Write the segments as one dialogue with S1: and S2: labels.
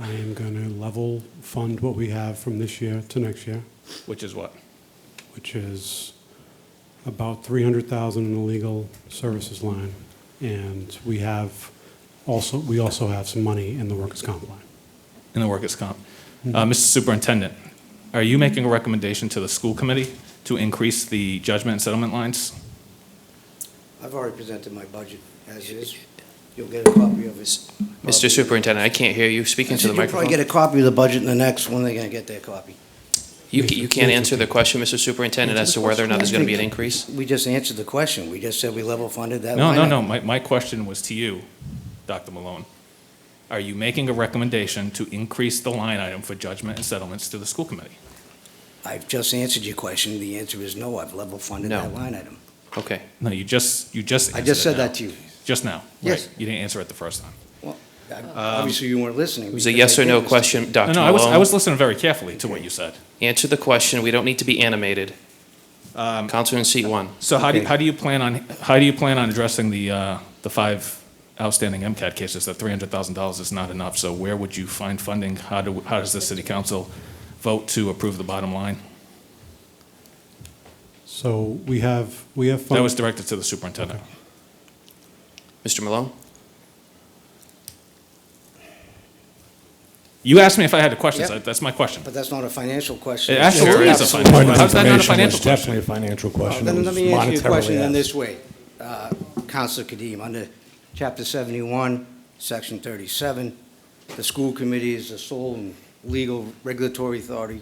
S1: I am going to level fund what we have from this year to next year,
S2: Which is what?
S1: which is about 300,000 in the legal services line. And we have also, we also have some money in the workers' comp line.
S2: in the workers' comp. Uh, Mr. Superintendent, are you making a recommendation to the school committee to increase the judgment and settlement lines?
S3: I've already presented my budget as is. You'll get a copy of this.
S4: Mr. Superintendent, I can't hear you speaking to the
S3: You'll probably get
S4: microphone.
S3: a copy of the budget in the next one, they're gonna get their copy.
S4: You, ca- you can't answer the question, Mr. Superintendent, as to whether or not there's going to be an increase?
S3: We just answered the question, we just said we level funded that
S2: No,
S3: line.
S2: no, no, my, my question was to you, Dr. Malone. Are you making a recommendation to increase the line item for judgment and settlements to the school committee?
S3: I've just answered your question, the answer is no, I've level funded
S4: No.
S3: that line item.
S4: Okay.
S2: No, you just, you just
S3: I just
S2: answered it
S3: said that
S2: now.
S3: to you.
S2: Just now?
S3: Yes.
S2: Right, You didn't answer it the first time.
S3: I- Obviously, you weren't listening.
S4: It was a yes or no question,
S2: No,
S4: Dr.
S2: no, I was, I was
S4: Malone.
S2: listening very carefully to what you said.
S4: Answer the question, we don't need to be animated.
S2: Um,
S4: Counselor in seat
S2: uh,
S4: one.
S2: So how do, you-
S3: Okay.
S2: how do you plan on, how do you plan on addressing the, uh, the five outstanding MCAT cases? That three hundred thousand dollars is not enough, so where would you find funding? How do, how does the city council vote to approve the bottom line?
S1: So we have, we have.
S2: That
S1: fun-
S2: was directed to the superintendent.
S4: Mr. Malone?
S2: You asked me if I had a question,
S3: Yep.
S2: so that's my question.
S3: But that's not a financial question.
S2: It actually
S3: Sure.
S2: is a
S3: Absolutely.
S2: financial, how's that not a
S5: Information
S2: financial
S5: was
S2: question?
S5: Definitely a financial
S3: Well,
S5: question. It
S3: Then
S5: was
S3: let me ask you a question
S5: monetarily
S3: in
S5: asked.
S3: this way. Uh, Counselor Kadim, under Chapter 71, Section 37, the school committee is the sole and legal regulatory authority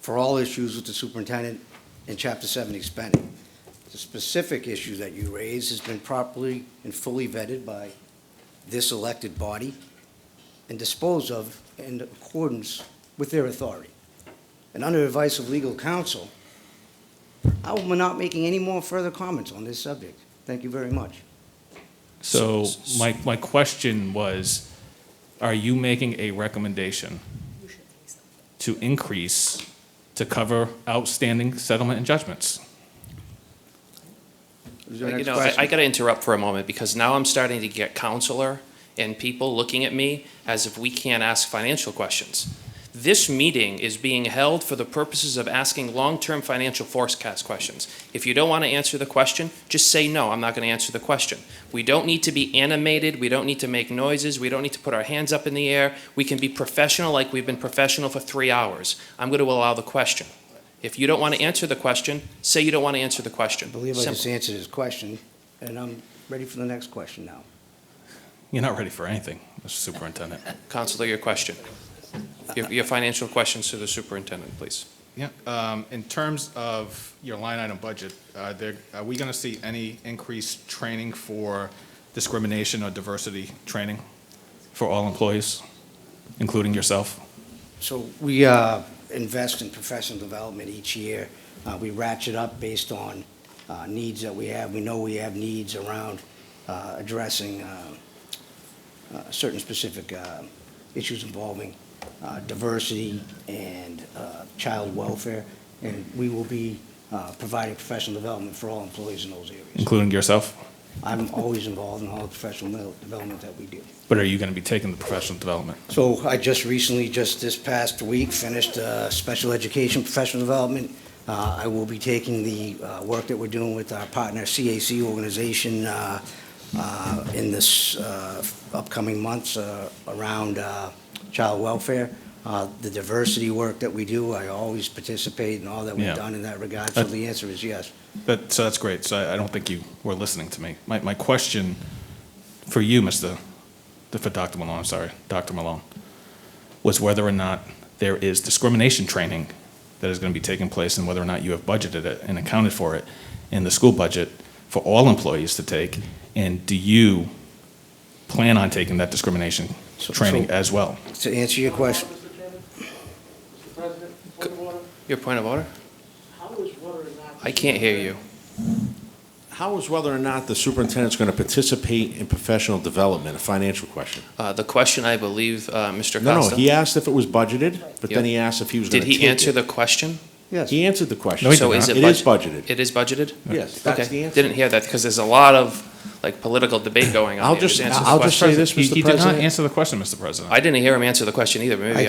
S3: for all issues with the superintendent in Chapter 70 spending. The specific issue that you raise has been properly and fully vetted by this elected body and disposed of in accordance with their authority. And under advice of legal counsel, I am not making any more further comments on this subject. Thank you very much.
S2: So my, my question was, are you making a recommendation to increase to cover outstanding settlement and judgments?
S3: Is there a
S4: You
S3: next
S4: know, I, I
S3: question?
S4: got to interrupt for a moment because now I'm starting to get counselor and people looking at me as if we can't ask financial questions. This meeting is being held for the purposes of asking long-term financial forecast questions. If you don't want to answer the question, just say, no, I'm not going to answer the question. We don't need to be animated. We don't need to make noises. We don't need to put our hands up in the air. We can be professional like we've been professional for three hours. I'm going to allow the question. If you don't want to answer the question, say you don't want to answer the question.
S3: I believe I
S4: Simple.
S3: just answered his question, and I'm ready for the next question now.
S2: You're not ready for anything, Mr. Superintendent.
S4: Counselor, your question. Your, your financial questions to the superintendent, please.
S2: Yeah, um, in terms of your line item budget, uh, there, are we gonna see any increased training for discrimination or diversity training for all employees, including yourself?
S3: So we uh, invest in professional development each year. Uh, We ratchet up based on uh, needs that we have. We know we have needs around uh, addressing um, uh, certain specific uh, issues involving uh, diversity and uh, child welfare, and we will be uh, providing professional development for all employees in those areas.
S2: Including yourself?
S3: I'm always involved in all the professional mel- development that we do.
S2: But are you gonna be taking the professional development?
S3: So I just recently, just this past week, finished uh, special education professional development. Uh, I will be taking the uh, work that we're doing with our partner CAC organization uh, uh, in this uh, upcoming months uh, around uh, child welfare. Uh, The diversity work that we do, I always participate in all that
S2: Yeah.
S3: we've done in that regard, so
S2: Uh,
S3: the answer is yes.
S2: That, so that's great, so I, I don't think you were listening to me. My, my question for you, Mr., for Dr. Malone, I'm sorry, Dr. Malone, was whether or not there is discrimination training that is gonna be taking place and whether or not you have budgeted it and accounted for it in the school budget for all employees to take, and do you plan on taking that discrimination
S3: So-
S2: training
S3: so-
S2: as well?
S3: To answer your question,
S6: Mr. Chairman, Mr. President, point of order.
S4: Your point of order?
S6: How is whether or not.
S4: I can't hear you.
S7: How is whether or not the superintendent's going to participate in professional development a financial question?
S4: Uh, the question, I believe, uh, Mr.
S7: No, no,
S4: Costa.
S7: he asked if it was budgeted, but then
S4: Yep.
S7: he asked if he was going
S4: Did
S7: to
S4: he answer the question?
S3: yes.
S7: He answered the question.
S4: No, he So did is not. it
S7: It is
S4: budget-
S7: budgeted.
S4: It is budgeted?
S7: Yes, that's the
S4: Okay,
S7: answer.
S4: didn't hear that because there's a lot of, like political debate going on.
S7: I'll
S4: here.
S7: just-
S4: answer the
S7: I'll just say
S4: question.
S7: this,
S2: He
S7: Mr.
S2: he did not
S7: President.
S2: answer the question, Mr. President.
S4: I didn't hear him answer the question either, but maybe